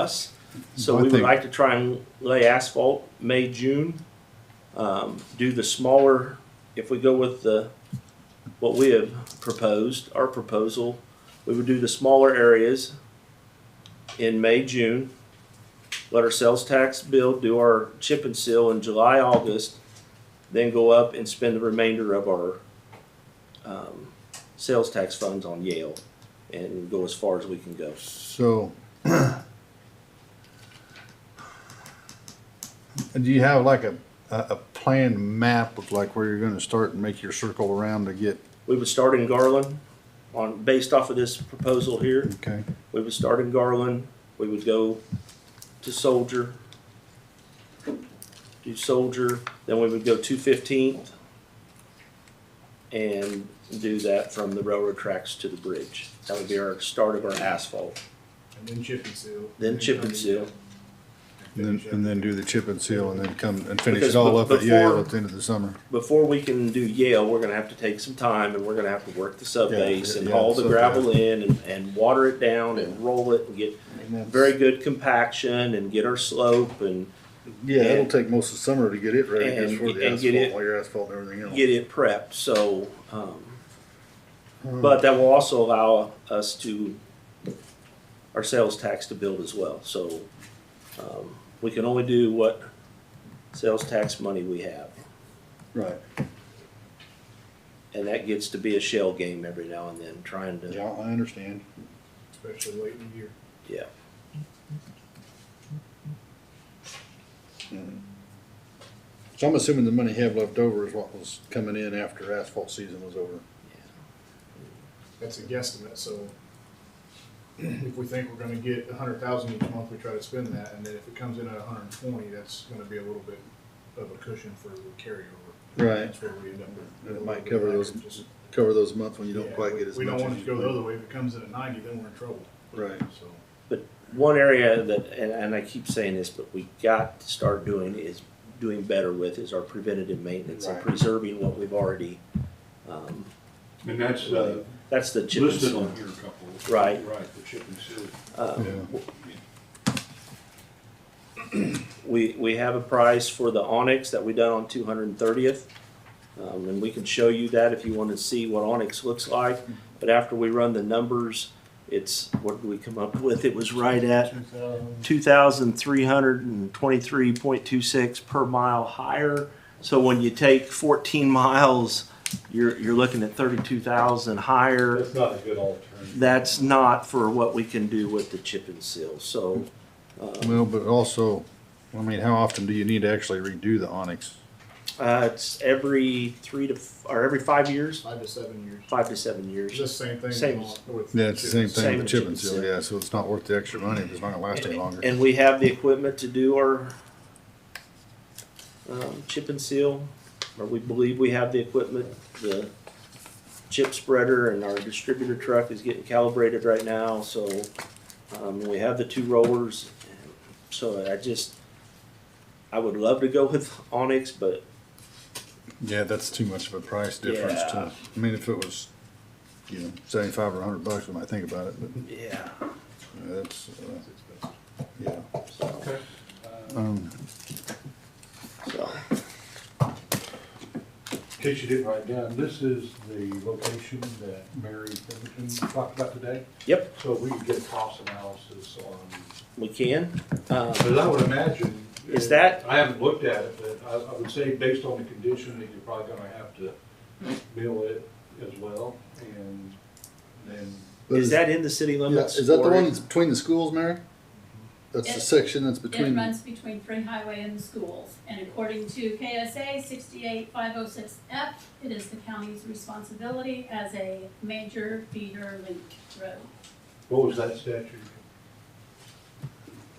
us. So I we would think- like to try and lay asphalt May, June. Um, do the smaller, if we go with the, what we have proposed, our proposal, we would do the smaller areas in May, June. Let our sales tax bill, do our chip and seal in July, August, then go up and spend the remainder of our, um, sales tax funds on Yale and go as far as we can go. So. Do you have like a, a, a planned map of like where you're gonna start and make your circle around to get, We would start in Garland on, based off of this proposal here, okay? we would start in Garland, we would go to Soldier, do Soldier, then we would go to Fifteenth and do that from the railroad tracks to the bridge. That would be our start of our asphalt. And then chip and seal. Then chip and seal. And then, and then do the chip and seal and then come and finish Because it all be- up at Yale before- at the end of the summer. Before we can do Yale, we're gonna have to take some time and we're gonna have to work the subbase and yeah, haul the sub- gravel in and, and water it down and roll it and get very good compaction and get our slope and Yeah, that'll take most of the summer to get it ready, 'cause for the And- and get asphalt, it- all your asphalt and everything get it prepped, so, um, but that will also allow us to, our sales tax to build as well, so, um, we can only do what sales tax money we have, Right. and that gets to be a shell game every now and then, trying to, I understand. Especially late in the year. yeah. So I'm assuming the money you have left over is what was coming in after asphalt season was over. That's a guesstimate, so if we think we're gonna get a hundred thousand each month, we try to spend that, and then if it comes in at a hundred and twenty, that's gonna be a little bit of a cushion for the carryover. Right. That's where we end up with. And a it might little bit cover higher, those- just- Cover those months when you don't yeah, quite we- get as much. We don't as want it you to go the think. other way. If it comes in at ninety, then we're in trouble, Right. so. One area that, and, and I keep saying this, but we got to start doing is, doing better with is our preventative maintenance and Right. preserving what we've already, um, And that's uh, that's the chip and listed seal. on here a couple. Right. Right, the chip and seal. Uh, Yeah. We, we have a price for the Onyx that we done on two hundred and thirtieth. Um, and we can show you that if you wanna see what Onyx looks like, but after we run the numbers, it's, what did we come up with? It was right at two thousand three hundred and twenty-three point two six per mile higher. So when you take fourteen miles, you're, you're looking at thirty-two thousand higher. That's not a good alternative. That's not for what we can do with the chip and seal, so. Well, but also, I mean, how often do you need to actually redo the onyx? Uh, it's every three to, f- or every five years, Five to seven years. five to seven It's years. the same thing. Same. with Yeah, it's the same chip and seal. thing with Same the chip and seal, yeah, so it's not worth the extra money, if it's not gonna last any longer. And we have the equipment to do our um, chip and seal, or we believe we have the equipment. The chip spreader and our distributor truck is getting calibrated right now, so um, we have the two rollers. So I just, I would love to go with Onyx, but Yeah, that's too much of a price difference to, I mean, if it was, you know, seventy-five or a hundred bucks, we might think about it, but yeah. that's, uh, yeah. so- Um, so. In case you didn't write down, this is the location that Mary Pemberton talked about today. Yep, So we can get a cost analysis on, we can. Um, because I would imagine. Is that- I haven't looked at it, but I, I would say based on the condition that you're probably gonna have to mill it as well and then. but Is that in the city yeah, limits? Is that the or- one that's between the schools, Mary? That's the It- section that's between, It the- runs between Free Highway and the schools, and according to KSA sixty-eight five oh six F, it is the county's responsibility as a major feeder link road. What was that statute?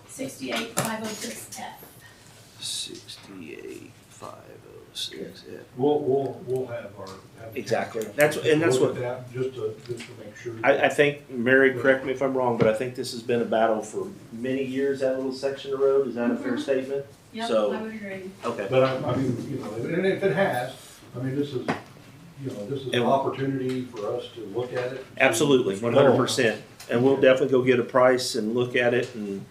Sixty-eight five oh six F. Sixty-eight, five oh six. We'll, we'll, we'll have our. have the- Exactly. That's- and that's Look at that, just to, just to make sure. I, I think, Mary, correct me if I'm wrong, but I think this has been a battle for many years, that little section of road. Is that a fair Mhm. statement? Yep, So- I would agree. Okay. But I, I mean, you know, and if it has, I mean, this is, you know, this is an And- opportunity for us to look at it. Absolutely, one hundred percent. And we'll definitely go get a price and look at it and